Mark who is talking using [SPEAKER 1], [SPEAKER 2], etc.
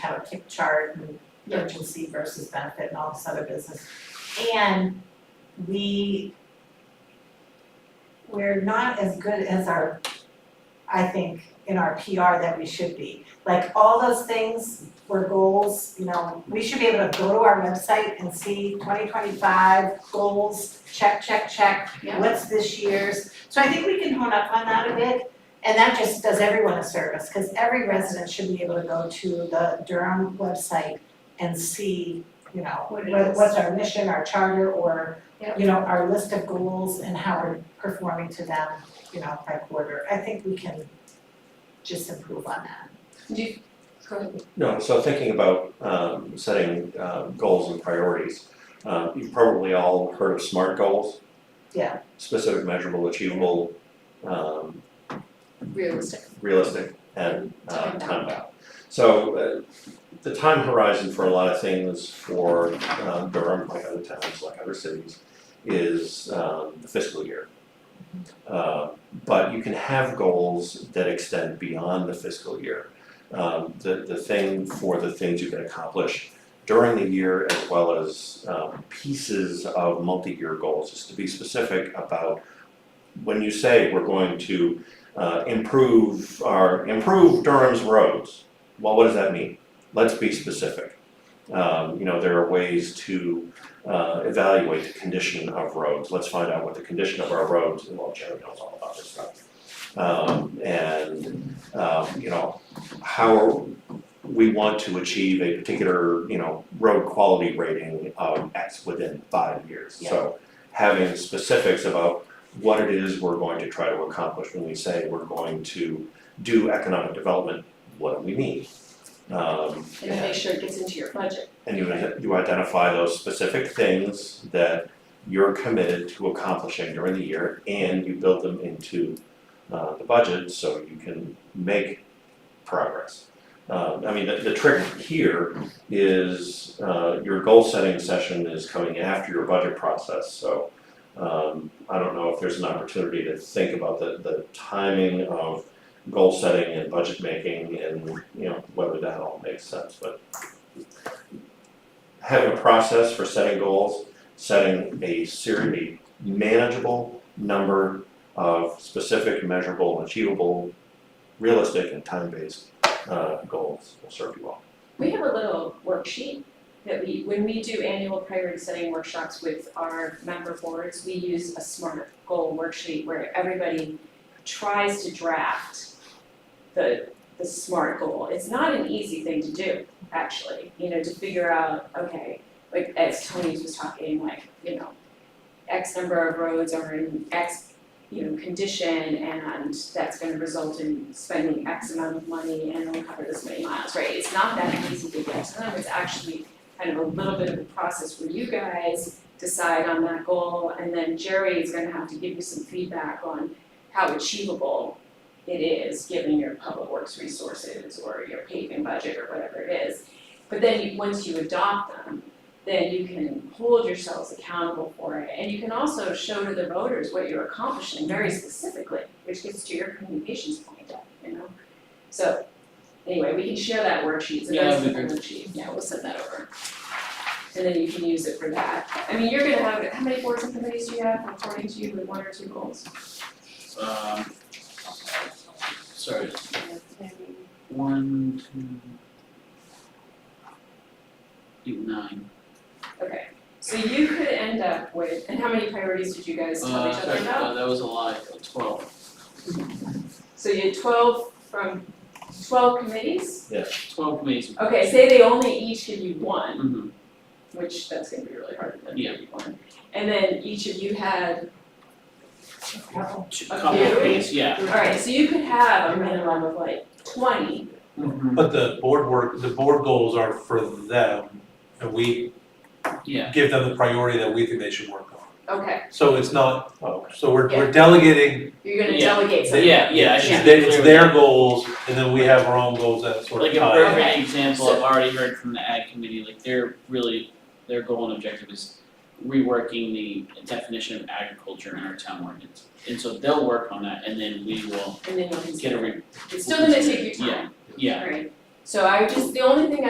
[SPEAKER 1] about tick chart and urgency versus benefit and all this other business. And we we're not as good as our, I think, in our PR that we should be. Like all those things were goals, you know, we should be able to go to our website and see twenty twenty-five goals, check, check, check.
[SPEAKER 2] Yeah.
[SPEAKER 1] What's this year's? So I think we can hone up on that a bit. And that just does everyone a service, because every resident should be able to go to the Durham website and see, you know,
[SPEAKER 2] What it
[SPEAKER 1] what
[SPEAKER 2] is.
[SPEAKER 1] what's our mission, our charter, or
[SPEAKER 2] Yep.
[SPEAKER 1] you know, our list of goals and how we're performing to them, you know, by quarter. I think we can just improve on that.
[SPEAKER 2] Do you, go ahead.
[SPEAKER 3] No, so thinking about um setting um goals and priorities, um you've probably all heard of SMART goals.
[SPEAKER 1] Yeah.
[SPEAKER 3] Specific, measurable, achievable, um
[SPEAKER 2] realistic,
[SPEAKER 3] realistic and
[SPEAKER 2] Time
[SPEAKER 3] uh
[SPEAKER 2] bound.
[SPEAKER 3] time bound. So uh the time horizon for a lot of things for um Durham, like other towns, like other cities, is um the fiscal year. Uh but you can have goals that extend beyond the fiscal year. Um the the thing for the things you can accomplish during the year as well as um pieces of multi-year goals is to be specific about when you say we're going to uh, improve our, improve Durham's roads. Well, what does that mean? Let's be specific. Um, you know, there are ways to, uh, evaluate the condition of roads. Let's find out what the condition of our roads, well, Jerry knows all about this stuff. Um, and, um, you know, how we want to achieve a particular, you know, road quality rating of X within five years. So having specifics about what it is we're going to try to accomplish when we say we're going to do economic development, what do we mean? Um,
[SPEAKER 2] and then make sure it gets into your budget.
[SPEAKER 3] and you, you identify those specific things that you're committed to accomplishing during the year and you build them into uh, the budget so you can make progress. Um, I mean, the, the trick here is uh, your goal setting session is coming after your budget process, so um, I don't know if there's an opportunity to think about the, the timing of goal setting and budget making and, you know, whether that all makes sense, but having a process for setting goals, setting a series, a manageable number of specific, measurable, achievable, realistic, and time-based uh, goals will serve you well.
[SPEAKER 2] We have a little worksheet that we, when we do annual priority setting workshops with our member boards, we use a SMART goal worksheet where everybody tries to draft the, the SMART goal. It's not an easy thing to do, actually, you know, to figure out, okay, like as Tony was talking, like, you know, X number of roads are in X, you know, condition and that's gonna result in spending X amount of money and it'll cover this many miles, right? It's not that easy to get to them, it's actually kind of a little bit of a process where you guys decide on that goal and then Jerry is gonna have to give you some feedback on how achievable it is, given your public works resources or your paving budget or whatever it is. But then you, once you adopt them, then you can hold yourselves accountable for it. And you can also show to the voters what you're accomplishing very specifically, which gets to your communications point, you know? So, anyway, we can share that worksheet, so
[SPEAKER 4] Yeah,
[SPEAKER 2] that's the
[SPEAKER 4] that'd be
[SPEAKER 2] worksheet, yeah, we'll send that over. And then you can use it for that. I mean, you're gonna have, how many boards and committees do you have according to you with one or two goals?
[SPEAKER 4] Um, sorry, one, two. I think nine.
[SPEAKER 2] Okay, so you could end up with, and how many priorities did you guys tell
[SPEAKER 4] Uh,
[SPEAKER 2] each other about?
[SPEAKER 4] uh, that was a lot, uh, twelve.
[SPEAKER 2] So you had twelve from, twelve committees?
[SPEAKER 4] Twelve committees.
[SPEAKER 2] Okay, say they only each give you one,
[SPEAKER 4] Mhm.
[SPEAKER 2] which that's gonna be really hard to
[SPEAKER 4] Yeah.
[SPEAKER 2] give you one. And then each of you had,
[SPEAKER 4] Two-
[SPEAKER 2] A
[SPEAKER 4] couple of
[SPEAKER 2] few.
[SPEAKER 4] committees, yeah.
[SPEAKER 2] alright, so you could have a minimum of like twenty,
[SPEAKER 4] Mhm.
[SPEAKER 5] But the board work, the board goals are for them, and we
[SPEAKER 4] Yeah,
[SPEAKER 5] give them the priority that we think they should work on.
[SPEAKER 2] okay,
[SPEAKER 5] So it's not,
[SPEAKER 3] Oh,
[SPEAKER 5] so we're,
[SPEAKER 2] Yeah.
[SPEAKER 5] we're delegating,
[SPEAKER 2] you're gonna
[SPEAKER 4] Yeah.
[SPEAKER 2] delegate
[SPEAKER 5] they,
[SPEAKER 2] something.
[SPEAKER 4] Yeah, yeah, I
[SPEAKER 5] it's
[SPEAKER 4] should be
[SPEAKER 5] their,
[SPEAKER 4] clear
[SPEAKER 5] it's their goals, and then we have our own goals that sort of
[SPEAKER 4] like a
[SPEAKER 5] tie.
[SPEAKER 4] perfect example,
[SPEAKER 2] So-
[SPEAKER 4] I've already heard from the ag committee, like they're really, their goal and objective is reworking the definition of agriculture in our town ordinance. And so they'll work on that and then we will
[SPEAKER 2] And then you'll
[SPEAKER 4] get a
[SPEAKER 2] consider,
[SPEAKER 4] re-
[SPEAKER 2] it's still gonna take you time,
[SPEAKER 4] yeah.
[SPEAKER 2] right? So I would just, the only thing I